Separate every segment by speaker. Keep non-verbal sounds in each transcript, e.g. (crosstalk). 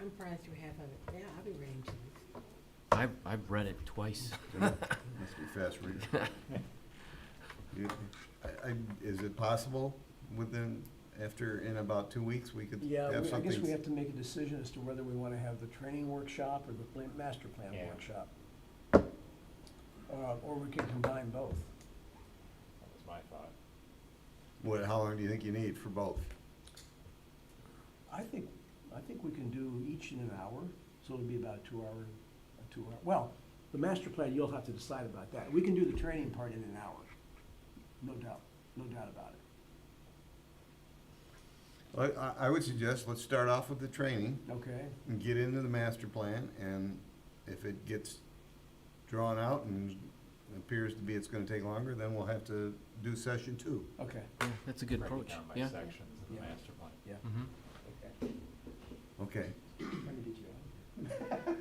Speaker 1: I'm frying through half of it. Yeah, I'll be ready in two weeks.
Speaker 2: I've, I've read it
Speaker 3: (laughs)
Speaker 2: twice.
Speaker 4: Must be fast reading. You- I- I- Is it possible within, after, in about two weeks, we could
Speaker 5: Yeah,
Speaker 4: have
Speaker 5: we- I guess we
Speaker 4: something?
Speaker 5: have to make a decision as to whether we want to have the training workshop or the plan, master plan
Speaker 3: Yeah.
Speaker 5: workshop. Uh, Or we could combine both.
Speaker 3: That was my thought.
Speaker 4: What, how long do you think you need for both?
Speaker 5: I think, I think we can do each in an hour, so it'll be about a two-hour, a two-hour, well, the master plan, you'll have to decide about that. We can do the training part in an hour, no doubt, no doubt about it,
Speaker 4: I, I- I would suggest, let's start off with the training
Speaker 5: okay?
Speaker 4: and get into the master plan, and if it gets drawn out and appears to be it's gonna take longer, then we'll have to do session two.
Speaker 5: Okay,
Speaker 2: Yeah, That's a good
Speaker 3: Break it
Speaker 2: approach,
Speaker 3: down by
Speaker 2: yeah.
Speaker 3: sections of the
Speaker 5: Yeah.
Speaker 3: master plan.
Speaker 5: yeah.
Speaker 2: Mhm.
Speaker 5: Okay.
Speaker 4: Okay.
Speaker 5: Let me get you on.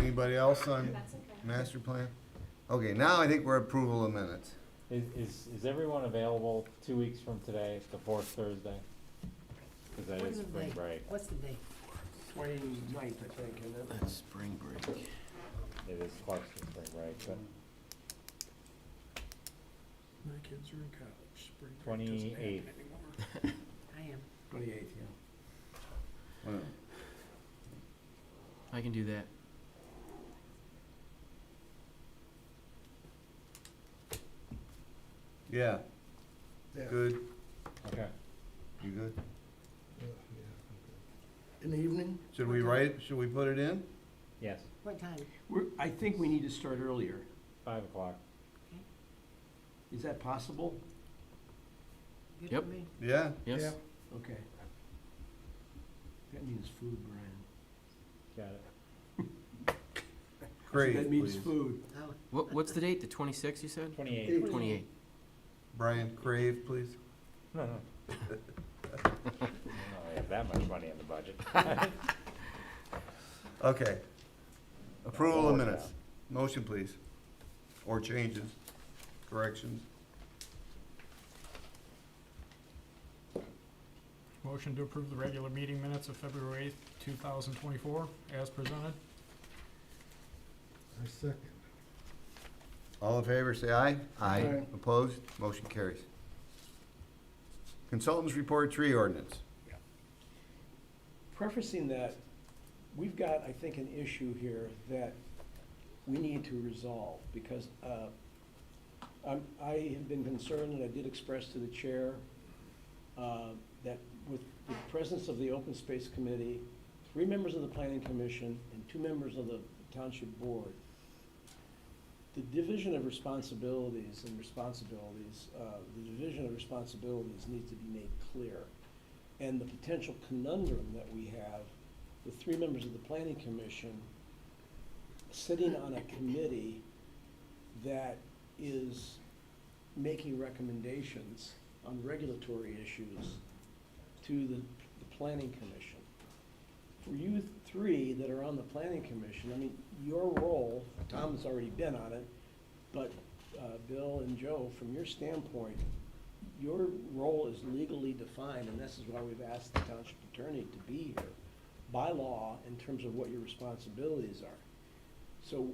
Speaker 4: Anybody else on
Speaker 6: That's okay.
Speaker 4: master plan? Okay, now I think we're approval of minutes.
Speaker 3: Is, is, is everyone available two weeks from today, the fourth Thursday? Cause that
Speaker 1: When's
Speaker 3: is
Speaker 1: the
Speaker 3: spring
Speaker 1: date?
Speaker 3: break.
Speaker 1: What's the date?
Speaker 5: Twenty-ninth, I think, and then,
Speaker 2: That's spring break.
Speaker 3: It is close to spring break, but
Speaker 7: My kids are in college. Spring break doesn't happen
Speaker 3: 28th.
Speaker 7: anymore.
Speaker 1: I am.
Speaker 5: twenty-eighth, yeah.
Speaker 4: Well,
Speaker 2: I can do that.
Speaker 4: Yeah,
Speaker 7: Yeah.
Speaker 4: good,
Speaker 3: Okay.
Speaker 4: you good?
Speaker 7: Yeah, yeah, okay. In the evening?
Speaker 4: Should we write, should we put it in?
Speaker 3: Yes,
Speaker 1: What time?
Speaker 5: We're, I think we need to start earlier.
Speaker 3: five o'clock.
Speaker 5: Is that possible?
Speaker 1: Good
Speaker 2: Yep.
Speaker 1: for me.
Speaker 4: Yeah,
Speaker 2: Yes?
Speaker 7: Yeah.
Speaker 5: Okay. That means food, Brian.
Speaker 3: Got it.
Speaker 4: great,
Speaker 5: That means
Speaker 4: please.
Speaker 5: food.
Speaker 1: Oh,
Speaker 2: What, what's the date? The twenty-sixth, you said?
Speaker 3: (laughs) Twenty-eight.
Speaker 2: Twenty-eight.
Speaker 4: Brian, crave, please.
Speaker 3: I don't have that much money in the budget.
Speaker 4: Okay. Approval of
Speaker 3: Lower
Speaker 4: minutes. Motion, please. Or changes, corrections.
Speaker 7: Motion to approve the regular meeting minutes of February eighth, two thousand twenty-four, as presented. I second.
Speaker 4: All in favor, say aye.
Speaker 7: Aye.
Speaker 4: Opposed? Motion carries. Consultants report tree ordinance.
Speaker 5: Prefacing that, we've got, I think, an issue here that we need to resolve because uh, I'm- I have been concerned, and I did express to the chair, uh, that with the presence of the Open Space Committee, three members of the Planning Commission, and two members of the Township Board, the division of responsibilities and responsibilities, uh, the division of responsibilities needs to be made clear. And the potential conundrum that we have with three members of the planning commission sitting on a committee that is making recommendations on regulatory issues to the, the planning commission. For you three that are on the planning commission, I mean, your role, Tom's already been on it, but, uh, Bill and Joe, from your standpoint, your role is legally defined, and this is why we've asked the township attorney to be here, by law, in terms of what your responsibilities are. So,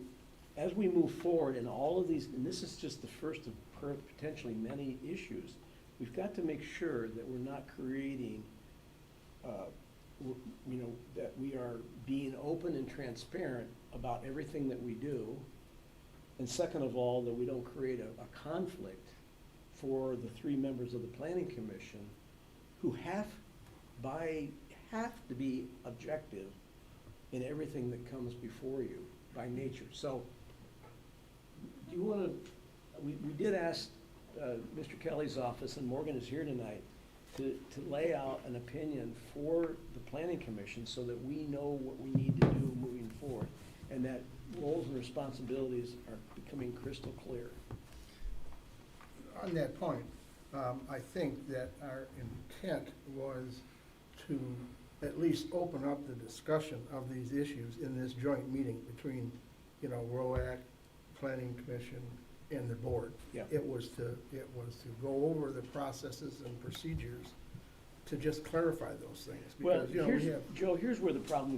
Speaker 5: as we move forward in all of these, and this is just the first of per- potentially many issues, we've got to make sure that we're not creating, uh, w- you know, that we are being open and transparent about everything that we do. And second of all, that we don't create a, a conflict for the three members of the planning commission who have, by, have to be objective in everything that comes before you by nature. So, do you wanna, we, we did ask, uh, Mr. Kelly's office, and Morgan is here tonight, to, to lay out an opinion for the planning commission so that we know what we need to do moving forward, and that roles and responsibilities are becoming crystal clear.
Speaker 8: on that point, um, I think that our intent was to at least open up the discussion of these issues in this joint meeting between, you know, ROAC, Planning Commission, and the board.
Speaker 5: Yeah.
Speaker 8: It was to, it was to go over the processes and procedures to just clarify those things.
Speaker 5: Well,
Speaker 8: Because, you know, we
Speaker 5: here's,
Speaker 8: have
Speaker 5: Joe, here's where the problem